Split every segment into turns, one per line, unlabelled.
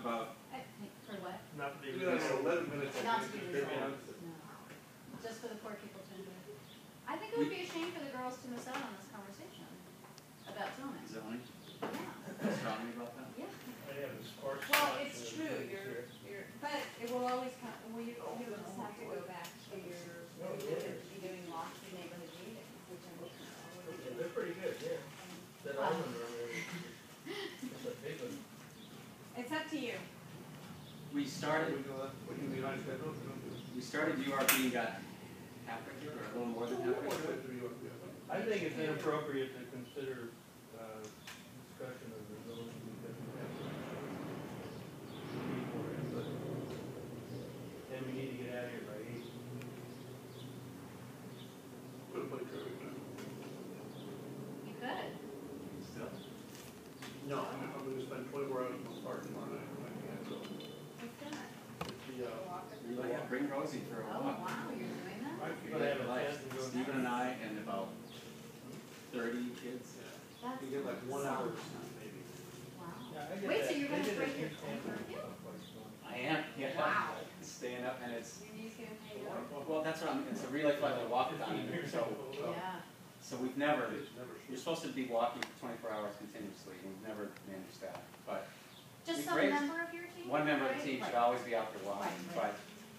about,
I- For what?
Not to
we
be.
got like eleven minutes. I
Not to be
think, to figure
resolved.
out the-
No. Just for the poor people to enjoy. I think it would be a shame for the girls to miss out on this conversation about zoning.
zoning,
Yeah,
Let's tell me about that.
yeah.
They have a
Well,
sparse. spot
it's
for
true,
things
you're,
here.
you're, but it will always come, we, you always have to go back to your, you're gonna be doing lots of neighborhood meetings, which I'm always
Yeah,
doing.
They're pretty good, yeah. That island over there, it's a big one.
It's up to you.
We
Sorry,
started,
we go, we do the United States, no, we don't do it.
we started URP and got half regular, or a little more than half regular.
I think it's inappropriate to consider, uh, discussion of the zoning because we have. to be more input. And we need to get out of here by eight.
Put a bike over there.
You could.
Still,
No, I'm, I'm gonna spend twenty-four hours in the park tomorrow night, I can't, so,
You could.
it's the, uh,
you like, to bring Rosie for a
Oh,
walk.
wow, you're doing that?
I
We're
feel
gonna
like,
have a
Like,
chance to go.
Stephen and I and about thirty kids.
yeah,
That's.
you get like one hour or
awesome.
something, maybe.
Wow.
Yeah, I get
Wait, so
that.
you're
They
gonna
did a
break your
huge
phone
campaign
for you?
about what's going on.
I am, yeah.
Wow.
Staying up and it's,
Your knees gonna pay you off.
well, that's what I'm, it's a relay five mile walk down in here, so,
Yeah.
so we've never,
It's never
you're
short.
supposed to be walking twenty-four hours continuously, and we've never managed that, but
Just
We
some
raised-
member of your team?
one member of the
right?
team should
Right.
always be out there walking,
Right, right.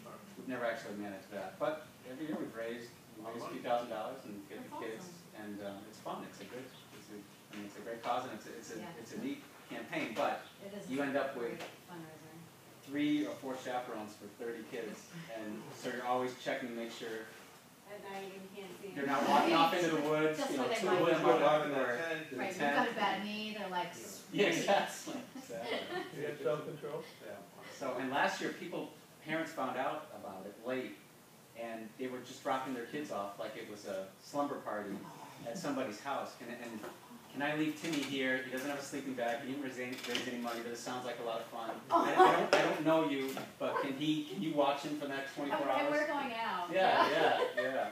but we've never actually managed that, but every year we've raised, we raise
Money.
two thousand dollars and give
That's
the kids, and, um, it's fun, it's a good, it's a, I mean, it's a great cause, and it's a, it's
Yeah.
a, it's a neat campaign, but
It is.
you
a
end up with
great Fundraiser.
three or four chaperones for thirty kids, and so you're always checking to make sure
At night, you can't see.
They're not walking off into the woods,
Just
you know,
where they
to the
might
woods,
be.
my dog or.
Ten,
the
Right, you've
tent.
got a bad knee, they're like.
Yeah,
"Sweet."
exactly.
You have self-control?
Yeah. So, and last year, people, parents found out about it late, and they were just dropping their kids off like it was a slumber party at somebody's house, and, and, can I leave Timmy here, he doesn't have a sleeping bag, he didn't raise any, raise any money, but it sounds like a lot of fun.
Oh.
I I don't, I don't know you, but can he, can you watch him for the next twenty-four
Okay, we're
hours?
going out.
Yeah, yeah, yeah,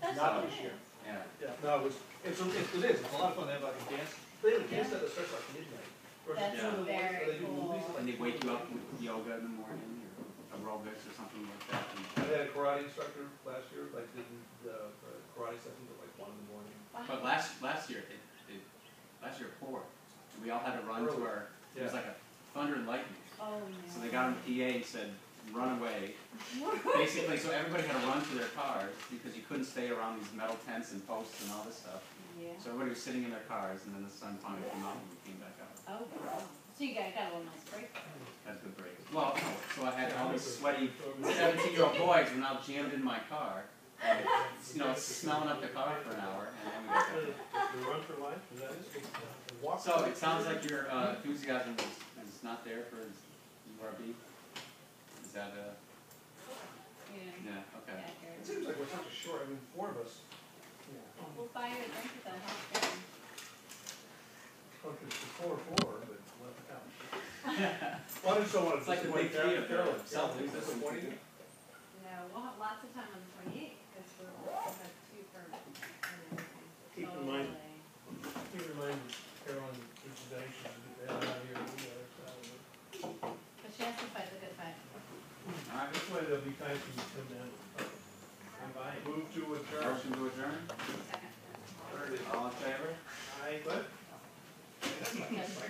That's
Not
what it
this
is.
year.
yeah.
Yeah, no, it's, it's, it's- it is, it's a lot of fun, they have like a dance, they have a dance that starts like midnight. Or
That's
Yeah.
something,
very
they do movies,
cool.
like-
And they wake you up with yoga in the morning, or aerobics or something like that, and
I had a karate instructor last year, like did the uh, karate sessions at like one in the morning.
Wow.
But last last year it, it last year it poured. And we all had to run to our it was like a thunder and lightning.
Oh,
So they got on the PA and said, run away.
no.
Basically so everybody had to run to their cars because you couldn't stay around these metal tents and posts and all this stuff.
Yeah.
So everybody was sitting in their cars and then the sun finally came out and we came back out.
Oh, wow. So you got, got a little nice break.
Had a good break. Well no, so I had all these sweaty seventeen year old boys were now jammed in my car. And, you know, smelling up the car for an hour and then we got back.
The run for life, is that it?
So it sounds like your uh, enthusiasm is, is not there for URB? Is that a,
You know,
yeah,
yeah,
okay.
It
Jared.
seems like we're such a short, I mean, four of us.
We'll buy you a drink at the house.
Okay, it's four, four, but left out. Well, I just don't want to.
It's like the big three of their self-interest.
No, we'll have lots of time on the twenty-eighth, because we're, we'll have two permits and everything.
Keep in mind,
Totally.
keep in mind Carolyn, each day she's out here, we got her.
But she has to fight the good fight.
All right,
This way there'll be time for you to come down and buy it.
Move to adjourn.
motion to adjourn?
Second.
All in favor?
I, what?
Yes.